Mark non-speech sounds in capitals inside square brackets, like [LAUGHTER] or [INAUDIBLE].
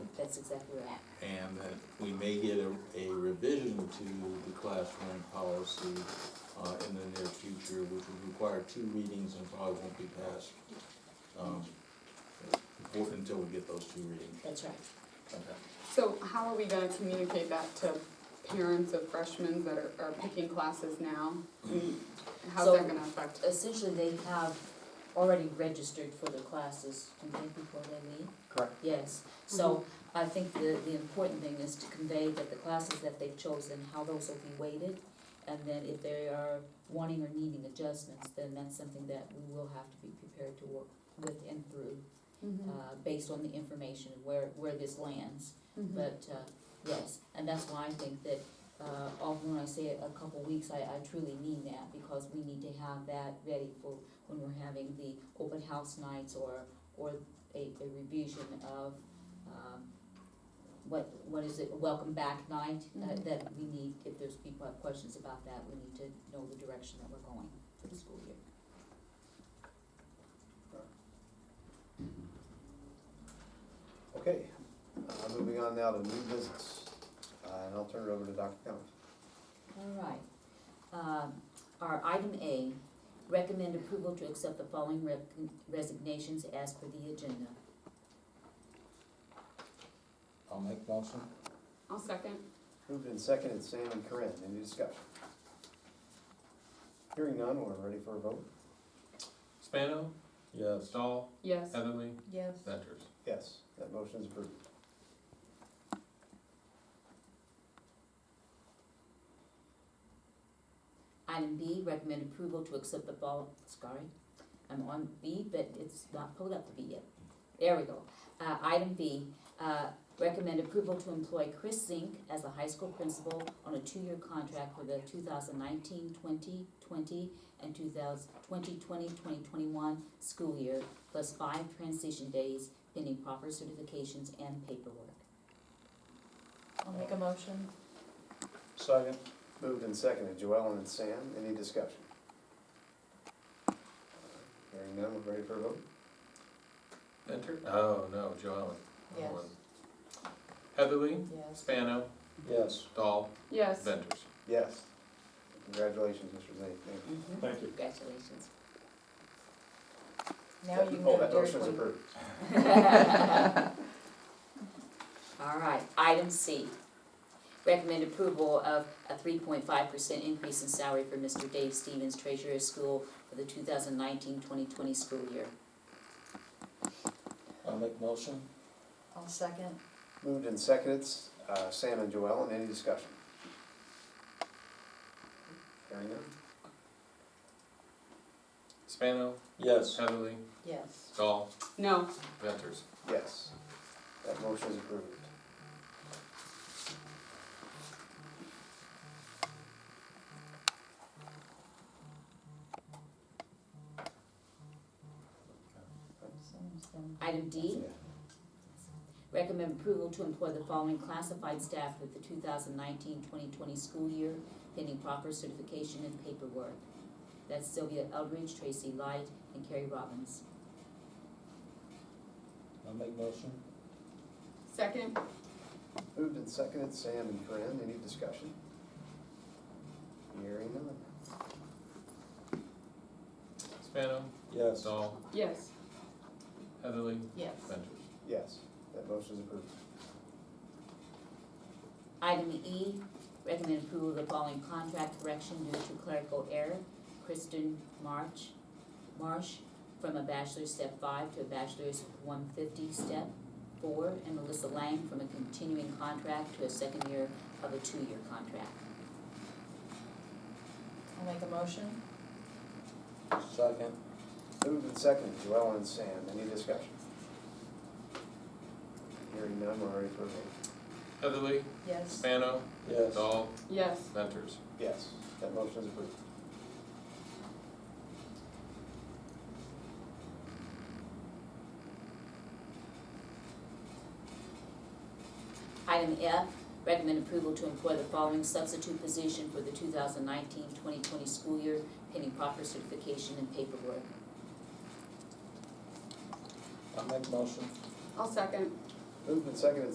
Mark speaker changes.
Speaker 1: That's exactly right.
Speaker 2: and that we may get a, a revision to the classroom policy, uh, in the near future, which would require two readings and probably won't be passed, um, for- until we get those two readings.
Speaker 1: That's right.
Speaker 2: Okay.
Speaker 3: So how are we gonna communicate that to parents of freshmen that are, are picking classes now? How's
Speaker 1: So-
Speaker 3: that gonna affect?
Speaker 1: Essentially, they have already registered for the classes, do you think, before they leave?
Speaker 4: Correct.
Speaker 1: Yes, so I think the, the important thing is to convey that the classes that they've chosen, how those will be weighted. And then if they are wanting or needing adjustments, then that's something that we will have to be prepared to work with and through,
Speaker 3: Mm-hmm.
Speaker 1: uh, based on the information where, where this lands.
Speaker 3: Mm-hmm.
Speaker 1: But, uh, yes, and that's why I think that, uh, often when I say a couple weeks, I, I truly mean that, because we need to have that ready for when we're having the open house nights or, or a, a revision of, um, what, what is it, a welcome back night, uh,
Speaker 3: Mhm.
Speaker 1: that we need, if there's people have questions about that, we need to know the direction that we're going for the school year.
Speaker 4: Okay, uh, moving on now to new business, uh, and I'll turn it over to Dr. Cummings.
Speaker 1: All right. Um, Our item A, recommend approval to accept the following rec- resignations as per the agenda.
Speaker 2: I'll make motion.
Speaker 3: I'll second.
Speaker 4: Moved and seconded, Sam and Corinne, any discussion? Hearing none, we're ready for a vote?
Speaker 5: Spano,
Speaker 2: Yes.
Speaker 5: Stahl,
Speaker 3: Yes.
Speaker 5: Heatherly,
Speaker 1: Yes.
Speaker 5: Ventures.
Speaker 4: Yes, that motion is approved.
Speaker 1: Item B, recommend approval to accept the fall, sorry, I'm on B, but it's not pulled up to B yet. There we go. Uh, item B, uh, recommend approval to employ Chris Zink as the high school principal on a two-year contract for the 2019-2020 and 2020-2021 school year, plus five transition days pending proper certifications and paperwork.
Speaker 6: I'll make a motion.
Speaker 4: Second. Moved and seconded, Joellen and Sam, any discussion? Hearing none, we're ready for a vote?
Speaker 5: Venter, oh, no, Joellen.
Speaker 6: Yes.
Speaker 5: Heatherly,
Speaker 6: Yes.
Speaker 5: Spano,
Speaker 4: Yes.
Speaker 5: Dahl,
Speaker 3: Yes.
Speaker 5: Ventures.
Speaker 4: Yes. Congratulations, Mr. Zane, thank you.
Speaker 2: Thank
Speaker 1: Mm-hmm.
Speaker 2: you.
Speaker 1: Congratulations.
Speaker 6: Now you can
Speaker 4: Oh,
Speaker 6: go to
Speaker 4: that
Speaker 6: Dairy
Speaker 4: motion is
Speaker 6: Queen.
Speaker 4: approved.
Speaker 1: [LAUGHS] All right, item C. Recommend approval of a three point five percent increase in salary for Mr. Dave Stevens, treasurer of school for the 2019-2020 school year.
Speaker 2: I'll make motion.
Speaker 6: I'll second.
Speaker 4: Moved and seconded, uh, Sam and Joellen, any discussion? Hearing none?
Speaker 5: Spano,
Speaker 2: Yes.
Speaker 5: Heatherly,
Speaker 6: Yes.
Speaker 5: Dahl,
Speaker 3: No.
Speaker 5: Ventures.
Speaker 4: Yes. That motion is approved.
Speaker 1: Item D. Recommend approval to employ the following classified staff for the 2019-2020 school year pending proper certification and paperwork. That's Sylvia Eldridge, Tracy Light, and Carrie Robbins.
Speaker 2: I'll make motion.
Speaker 3: Second.
Speaker 4: Moved and seconded, Sam and Corinne, any discussion? Hearing none.
Speaker 5: Spano,
Speaker 2: Yes.
Speaker 5: Dahl,
Speaker 3: Yes.
Speaker 5: Heatherly,
Speaker 6: Yes.
Speaker 5: Ventures.
Speaker 4: Yes, that motion is approved.
Speaker 1: Item E, recommend approval of the following contract correction due to clerical error. Kristen March, Marsh, from a bachelor's step five to a bachelor's one fifty step four, and Melissa Lang from a continuing contract to a second year of a two-year contract.
Speaker 6: I'll make a motion.
Speaker 2: Second.
Speaker 4: Moved and seconded, Joellen and Sam, any discussion? Hearing none, we're ready for a vote.
Speaker 5: Heatherly,
Speaker 6: Yes.
Speaker 5: Spano,
Speaker 2: Yes.
Speaker 5: Dahl,
Speaker 3: Yes.
Speaker 5: Ventures.
Speaker 4: Yes, that motion is approved.
Speaker 1: Item F, recommend approval to employ the following substitute position for the 2019-2020 school year pending proper certification and paperwork.
Speaker 2: I'll make motion.
Speaker 3: I'll second.
Speaker 4: Moved and seconded,